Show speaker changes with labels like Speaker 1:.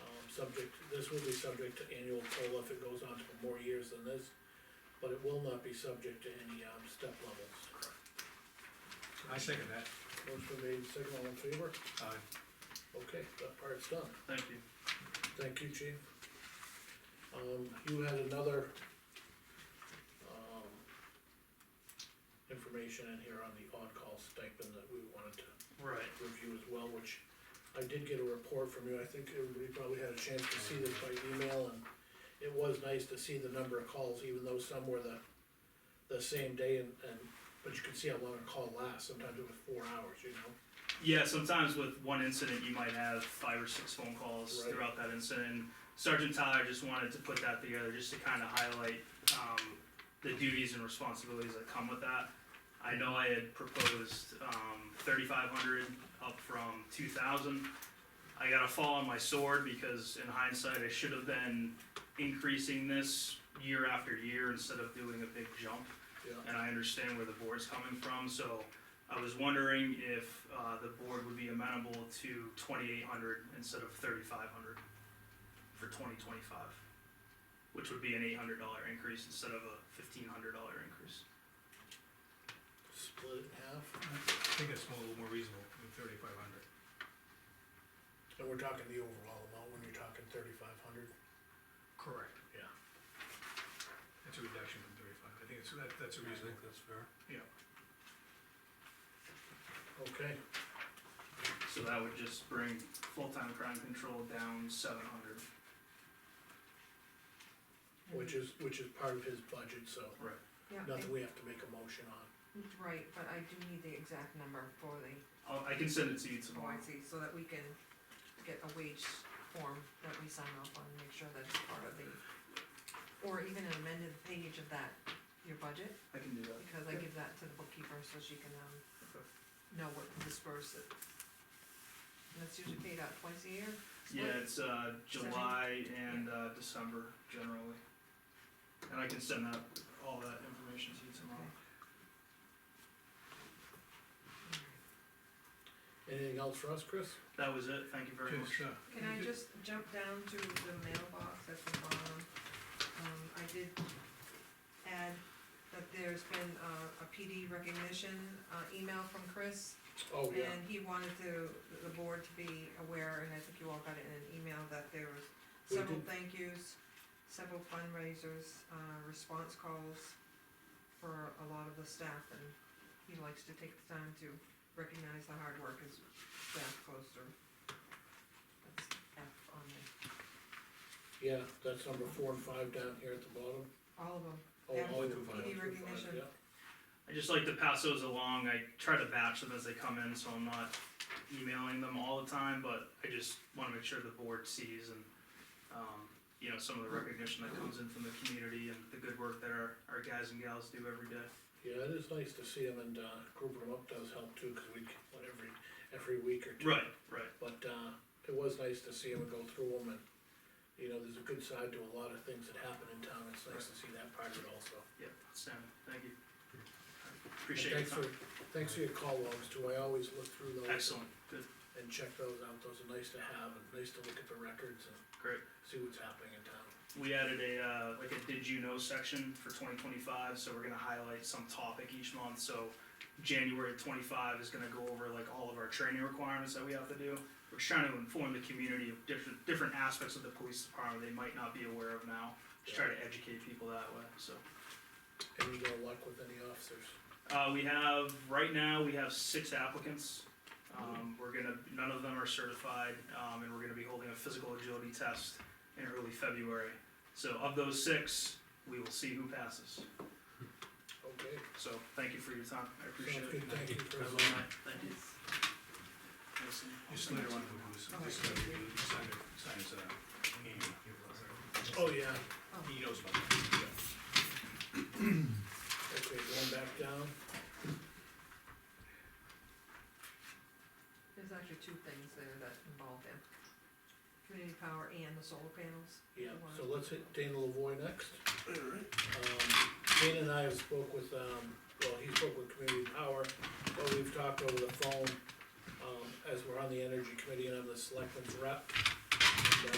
Speaker 1: Um, subject, this will be subject to annual COLA if it goes on for more years than this, but it will not be subject to any, um, step levels.
Speaker 2: I second that.
Speaker 1: Motion made, second all in favor?
Speaker 2: Uh,
Speaker 1: Okay, that part's done.
Speaker 3: Thank you.
Speaker 1: Thank you, chief. Um, you had another, um, information in here on the on-call stipend that we wanted to
Speaker 3: Right.
Speaker 1: review as well, which I did get a report from you, I think everybody probably had a chance to see this by email, and it was nice to see the number of calls, even though some were the, the same day, and, and, but you could see how long a call lasts, sometimes it was four hours, you know?
Speaker 3: Yeah, sometimes with one incident, you might have five or six phone calls
Speaker 1: Right.
Speaker 3: throughout that incident. Sergeant Tyler just wanted to put that together just to kind of highlight um, the duties and responsibilities that come with that. I know I had proposed um, 3,500 up from 2,000. I got a fall on my sword because, in hindsight, I should have been increasing this year after year instead of doing a big jump.
Speaker 1: Yeah.
Speaker 3: and I understand where the board's coming from, so I was wondering if, uh, the board would be amenable to twenty-eight hundred instead of thirty-five hundred for twenty twenty-five, which would be an eight hundred dollar increase instead of a fifteen hundred dollar increase.
Speaker 1: Split it in half,
Speaker 2: I think it's more- a little more reasonable than thirty-five hundred.
Speaker 1: and we're talking the overall amount, when you're talking thirty-five hundred,
Speaker 2: Correct.
Speaker 1: yeah.
Speaker 2: That's a reduction from thirty-five. I think it's, that, that's
Speaker 4: I
Speaker 2: a
Speaker 4: think
Speaker 2: reasonable.
Speaker 4: that's fair.
Speaker 1: Okay,
Speaker 3: So that would just bring full-time crime control down seven hundred.
Speaker 1: which is, which is part of his budget, so,
Speaker 3: Right.
Speaker 5: Yeah, I-
Speaker 1: nothing we have to make a motion on.
Speaker 5: right, but I do need the exact number for the
Speaker 3: I'll, I can send it to you tomorrow.
Speaker 5: OIC, so that we can get a wage form that we sign off on, and make sure that it's part of the, or even an amended page of that, your budget,
Speaker 3: I can do that.
Speaker 5: because I give that to the bookkeeper so she can, um, know what to disperse it. And that's usually paid out twice a year,
Speaker 3: Yeah,
Speaker 5: split,
Speaker 3: it's, uh, July and, uh, December generally. And I can send that, all that information to you tomorrow.
Speaker 1: Anything else for us, Chris?
Speaker 3: That was it, thank you very much.
Speaker 2: Just, uh,
Speaker 5: Can I just jump down to the mailbox at the bottom? Um, I did add that there's been uh, a PD recognition, uh, email from Chris.
Speaker 1: Oh, yeah,
Speaker 5: And he wanted to, the board to be aware, and I think you all got it in an email, that there was
Speaker 1: We
Speaker 5: several
Speaker 1: did.
Speaker 5: thank yous, several fundraisers, uh, response calls for a lot of the staff, and he likes to take the time to recognize the hard work as staff goes through. That's F on there,
Speaker 1: yeah, that's number four and five down here at the bottom.
Speaker 5: all of them,
Speaker 1: Oh,
Speaker 5: Yeah,
Speaker 1: all
Speaker 2: we
Speaker 1: the
Speaker 2: can
Speaker 5: find
Speaker 1: files,
Speaker 5: it.
Speaker 1: we can find it, yeah.
Speaker 3: I just like to pass those along. I try to batch them as they come in, so I'm not emailing them all the time, but I just wanna make sure the board sees and, um, you know, some of the recognition that comes in from the community and the good work that our, our guys and gals do every day.
Speaker 1: Yeah, it is nice to see them and, uh, grouping them up does help too, cause we, get one every, every week or two.
Speaker 3: Right, right.
Speaker 1: But, uh, it was nice to see them and go through them and, you know, there's a good side to a lot of things that happen in town, it's nice to see that part of it also.
Speaker 3: Yeah, outstanding. Thank you.
Speaker 1: And
Speaker 3: Appreciate your
Speaker 1: thanks for-
Speaker 3: time.
Speaker 1: Thanks for your call logs too, I always look through those.
Speaker 3: Excellent, good,
Speaker 1: And check those out, those are nice to have, and nice to look at the records and
Speaker 3: great.
Speaker 1: see what's happening in town.
Speaker 3: We added a, uh, like a did you know section for twenty twenty-five, so we're gonna highlight some topic each month, so January twenty-five is gonna go over like all of our training requirements that we have to do. We're just trying to inform the community of different, different aspects of the police department they might not be aware of now, just try to educate people that way, so.
Speaker 1: Any more luck with any officers?
Speaker 3: Uh, we have, right now, we have six applicants. Um, we're gonna, none of them are certified, um, and we're gonna be holding a physical agility test in early February. So of those six, we will see who passes.
Speaker 1: Okay,
Speaker 3: So thank you for your time, I appreciate
Speaker 1: sounds
Speaker 3: it.
Speaker 1: good, thank you, Chris.
Speaker 3: Have a good night. Thank you.
Speaker 5: Yes.
Speaker 3: Listen.
Speaker 2: just later on, we'll just, just, uh, sign it, sign it, uh, he-
Speaker 1: Oh, yeah,
Speaker 2: he knows about it.
Speaker 1: okay, going back down,
Speaker 5: there's actually two things there that involve them. Community power and the solar panels.
Speaker 1: yeah,
Speaker 5: One.
Speaker 1: so let's hit Dana Lavoy next. Um, Dana and I have spoke with, um, well, he spoke with Community Power, but we've talked over the phone, um, as we're on the energy committee and I'm the selectman's rep. And, uh,